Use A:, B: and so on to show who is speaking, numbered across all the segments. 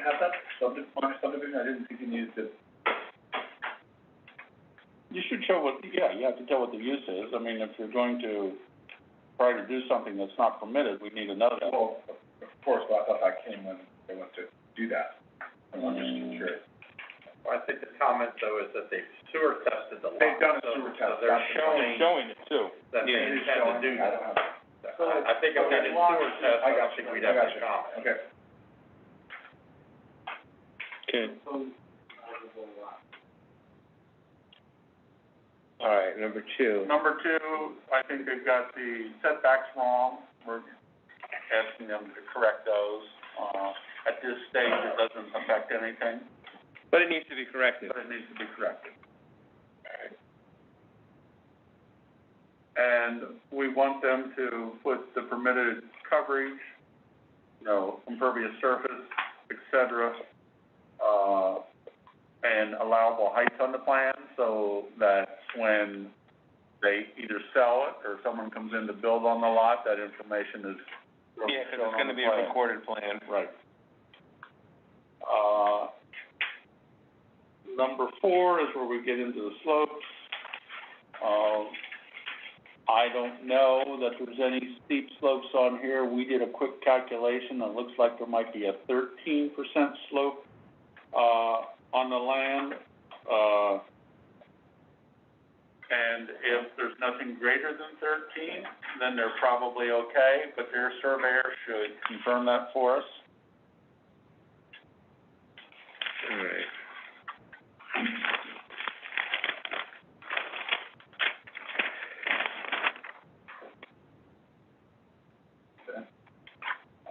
A: Have that subdivision, subdivision, I didn't think you needed to.
B: You should show what, yeah, you have to tell what the use is. I mean, if you're going to try to do something that's not permitted, we need to know that.
A: Well, of course, well, I thought that came when they went to do that, I'm
C: Mm.
A: just curious.
D: I think the comment though is that they've sewer tested the lot.
A: They've done a
D: so-
A: sewer test,
D: So they're
A: that's the
D: showing
B: Showing it too.
D: that they
A: It is
D: intend to
A: showing,
D: do
A: I
D: that.
A: don't have it.
D: I, I think if they did sewer test, I don't think we'd have a comment.
A: Okay.
B: Okay.
C: All right, number two.
B: Number two, I think they've got the setbacks wrong. We're asking them to correct those. Uh, at this stage, it doesn't affect anything,
C: But it needs to be corrected.
B: but it needs to be corrected.
C: Alright.
B: And we want them to put the permitted coverage, you know, impervious surface, et cetera, uh, and allowable heights on the plan, so that when they either sell it or someone comes in to build on the lot, that information is shown on the plan.
C: Yeah, 'cause it's gonna be a recorded plan.
B: Right. Uh, number four is where we get into the slopes. Um, I don't know that there's any steep slopes on here. We did a quick calculation. It looks like there might be a thirteen percent slope, uh, on the land. Uh, and if there's nothing greater than thirteen, then they're probably okay, but their surveyor should confirm that for us.
C: All right.
B: Uh,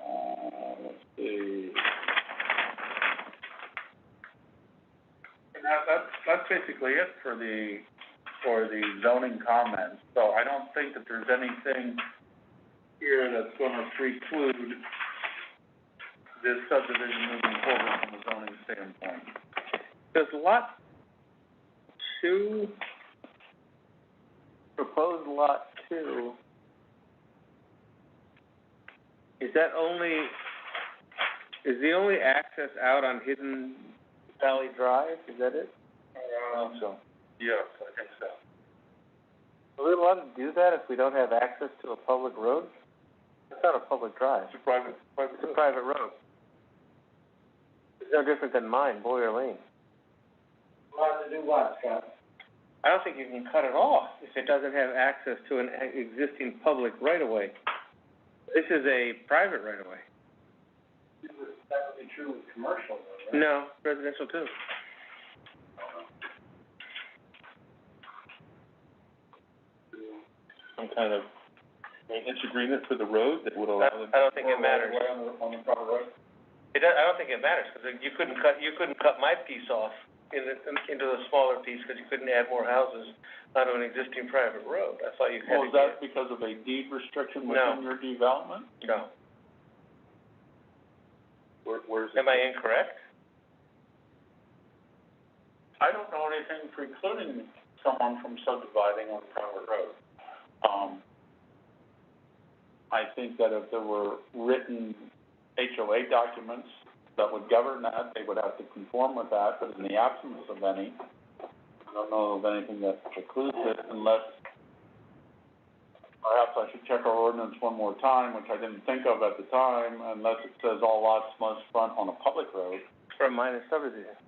B: let's see. And that, that's, that's basically it for the, for the zoning comments, so I don't think that there's anything here that's gonna preclude this subdivision moving forward from a zoning standpoint.
C: Does lot two, proposed lot two, is that only, is the only access out on Hidden Valley Drive, is that it?
B: so. Um, Yes, I think so.
C: Are we allowed to do that if we don't have access to a public road? It's not a public drive,
B: It's a private, private
C: it's a
B: road.
C: private road. It's no different than mine, Boyer Lane.
A: Allowed to do what, Scott?
C: I don't think you can cut it off if it doesn't have access to an e- existing public right-of-way. This is a private right-of-way.
A: That would be true with commercial, though,
C: No, residential too.
B: Some kind of maintenance agreement for the road that would
C: I, I don't think it matters.
A: Right on the, on the private road?
C: It does, I don't think it matters, 'cause you couldn't cut, you couldn't cut my piece off in the, into the smaller piece, 'cause you couldn't add more houses onto an existing private road. I thought you had
B: Well, is
C: to get,
B: that because of a deed
C: No.
B: restriction within your development?
C: no.
B: Where, where's
C: Am I incorrect?
B: I don't know anything precluding someone from subdividing on a private road. Um, I think that if there were written HOA documents that would govern that, they would have to conform with that, but in the absence of any, I don't know of anything that precludes it unless, perhaps I should check our ordinance one more time, which I didn't think of at the time, unless it says all lots must front on a public road.
C: For a minor subdivision.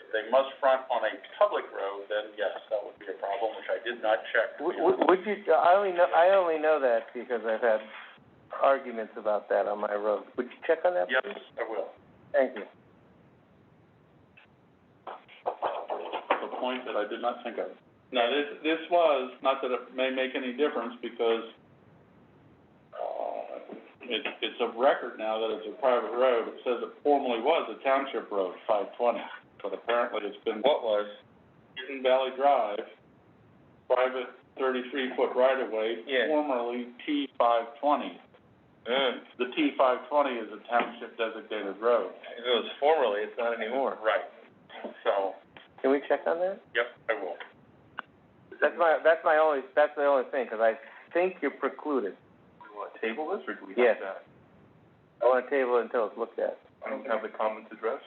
B: If they must front on a public road, then yes, that would be a problem, which I did not check.
C: Would, would you, I only know, I only know that because I've had arguments about that on my road. Would you check on that,
B: Yes,
C: please?
B: I will.
C: Thank you.
B: The point that I did not think of. Now, this, this was, not that it may make any difference, because, uh, it, it's of record now that it's a private road. It says it formerly was a township road, five twenty, but apparently it's been
C: What was?
B: Hidden Valley Drive, private thirty-three foot right of way,
C: Yeah.
B: formerly T five twenty.
C: Mm,
B: The T five twenty is a township designated road.
C: if it was formerly, it's not anymore.
B: Right, so,
C: Can we check on that?
B: yep, I will.
C: That's my, that's my only, that's the only thing, 'cause I think you're precluded.
B: Do you wanna table this, or do we
C: Yes.
B: have that?
C: I wanna table it until it's looked at.
B: I don't have the comments addressed.